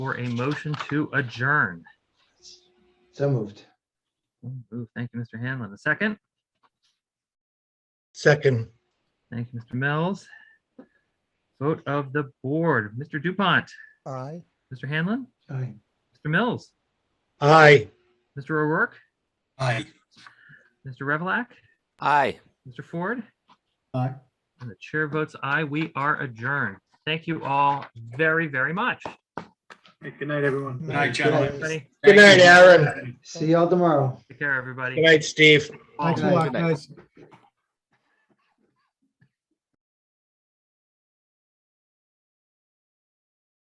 for a motion to adjourn. So moved. Ooh, Thank you, Mr. Hanlon. A second. Second, Thank you, Mr. Mills. Vote of the board. Mr. Dupont, aye. Mr. Hanlon, Aye. Mr. Mills, aye. Mr. O'Rourke, Aye. Mr. Revlock, Aye. Mr. Ford, Aye. and the chair votes aye. We are adjourned. Thank you all very, very much. Hey, Good night, everyone. Good night, Everybody, gentlemen. Good night, Thank you. Aaron. See y'all tomorrow. Take care, everybody. Good night, Steve. All Thanks a right. lot, guys.